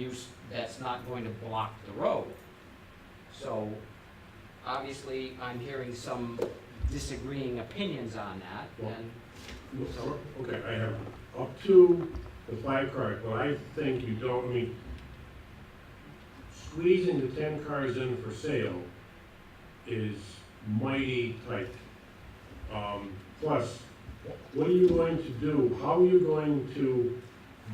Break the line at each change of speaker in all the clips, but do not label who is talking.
use that's not going to block the road. So, obviously, I'm hearing some disagreeing opinions on that, and, So-
Okay, I have up to the five cars, but I think you don't, I mean, squeezing the ten cars in for sale is mighty tight. Um, plus, what are you going to do, how are you going to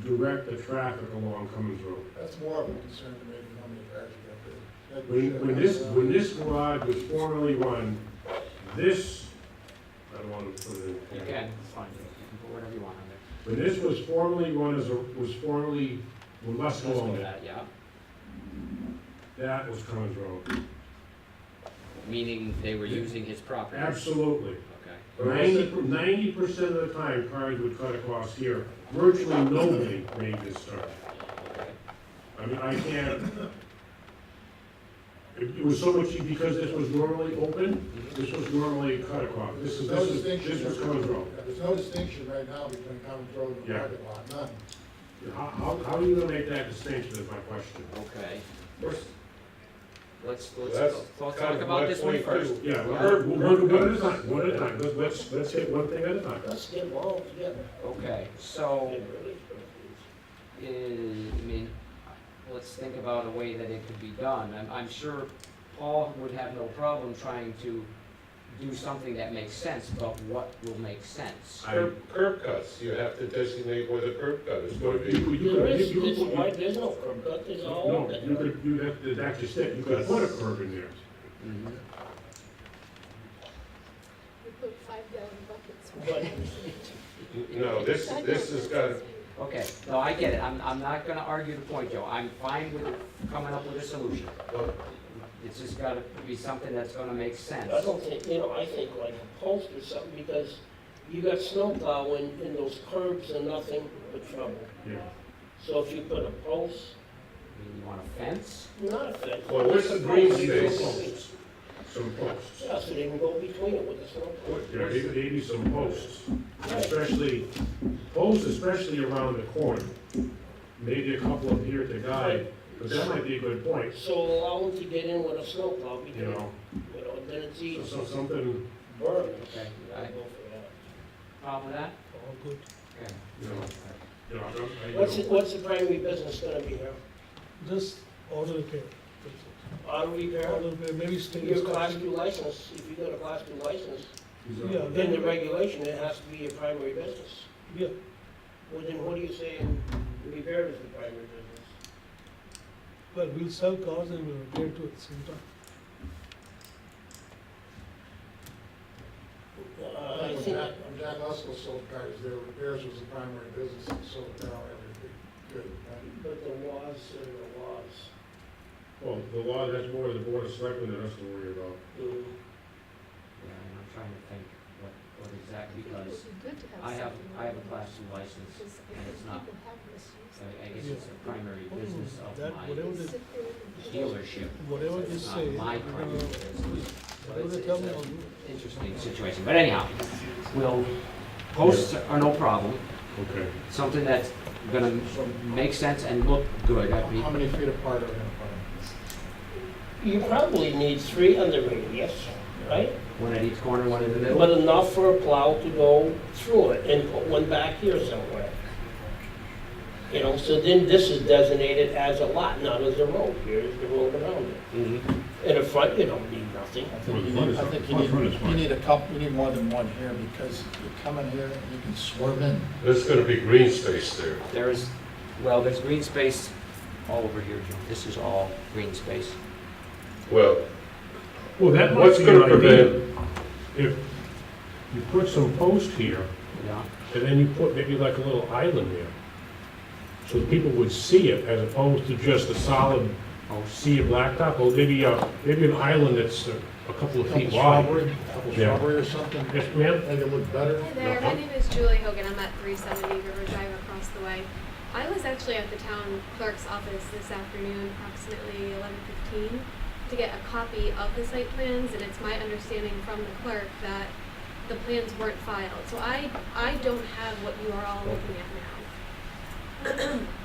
direct the traffic along Cummins Road?
That's more of a concern to me than how many cars you got there.
When, when this, when this garage was formerly run, this, I don't wanna put it in.
you can, it's fine, you can put whatever you want on there.
When this was formerly run as a, was formerly, well, less
Let's go
alone,
with that, yeah.
that was Cummins Road.
Meaning they were using his property.
Absolutely.
Okay,
Ninety, ninety percent of the time, cars would cut across here. Virtually nobody made this turn.
okay.
I mean, I can't. It it was so much, because this was normally open,
Mhm.
this was normally cut across. This is, this is, this was Cummins Road.
There's no distinction right now between common road and
Yeah.
private lot, none.
How, how, how are you gonna make that distinction is my question.
Okay, let's, let's,
That's
let's
kind
talk
of
about
my
this one
point,
first.
too.
Yeah, one, one, one at a time, one at a time. Let's, let's, let's hit one thing at a time.
Let's get all together.
Okay, so, is, I mean, let's think about a way that it could be done. I'm, I'm sure Paul would have no problem trying to do something that makes sense, but what will make sense?
I,
Curb, curb cuts, you have to designate where the curb cut is
Well,
going to
you,
be.
you, you,
There is,
you-
this
you-
white, there's no curb cut, there's all.
No, you could, you have to, that's just it, you could put a curb in there.
Mhm.
We put five gallon buckets.
But-
No, this, this has got,
Okay, no, I get it, I'm, I'm not gonna argue the point, Joe, I'm fine with coming up with a solution.
well,
It's just gotta be something that's gonna make sense.
I don't think, you know, I think like a post or something, because you got snow plowing and those curbs are nothing but trouble.
Yeah.
So if you put a post,
I mean, You want a fence?
not a fence.
Well, where's the
but a
green
post, you
space?
can go between-
Some posts.
Yeah, so they can go between it with the snow. plow.
There may may be some posts, especially, posts especially around the corner. Maybe a couple up here to guide, but that might be a good point,
So allow them to get in with a snow plow,
you
because,
know?
you know, then it's
So-
easy.
So something,
Burn.
Okay,
I
I-
go for that.
Problem with that? Okay.
you know, you know, I don't- I- you
What's, the-
know,
what's the primary business gonna be here?
Just auto repair.
Auto repair?
Auto repair, maybe stainless.
Your class
steel.
two license, if you got a class two license,
these are-
Yeah,
Then the
then,
regulation, it has to be your primary business.
yeah,
Well, then what are you saying, repair is the primary business?
well, we'll sell cars and we'll repair too at the same time.
Uh, I
When
think,
Jack, when Jack Russell sold cars, their repairs was the primary business, and sold car every, good, right?
but the laws are the laws.
Well, the law, that's more the board of selectmen than us to worry about.
Mm.
Yeah, and I'm trying to think what, what exactly,
It would
because
be good to have
I have,
something
I have a
like
class
that,
two license,
because I
and
think
it's not,
people have misused
I I guess it's the primary business of
That
my
whatever
it. They
they,
sit there and-
dealership.
whatever
It's
they
not
say,
My
we're
primary
gonna-
business, but
whatever
it's,
they
it's
tell me,
a
I'll do.
interesting situation, but anyhow, we'll, posts are no problem,
Okay.
something that's gonna make sense and look good, I mean,
How many feet apart are they apart?
You probably need three under radius, right?
one at each corner, one in the middle.
But enough for a plow to go through it and put one back here somewhere. You know, so then this is designated as a lot, not as a road. Here's the road around it.
Mhm.
In the front, you don't need nothing.
I
Well,
think you
the front
need,
is
I
fine.
think you
Front- front is
need, you
fine.
need a couple, you need more than one here, because you're coming here, you can swerve in.
There's going to be green space there.
There is, well, there's green space all over here, Joe, this is all green space.
Well,
Well, that might
What's
be
gonna
an idea. If you put some post here,
Yeah,
and then you put maybe like a little island there, so that people would see it as opposed to just a solid
oh,
sea of blacktop, or maybe a, maybe an island that's a a couple of
Couple
feet wide.
shrubbery, couple
Yeah.
shrubbery or something,
Yes, ma'am?
make it look better.
Hi there, my name is Julie Hogan, I'm at 370 River Drive across the way. I was actually at the town clerk's office this afternoon, approximately 11:15, to get a copy of the site plans, and it's my understanding from the clerk that the plans weren't filed. So I, I don't have what you are all looking at now.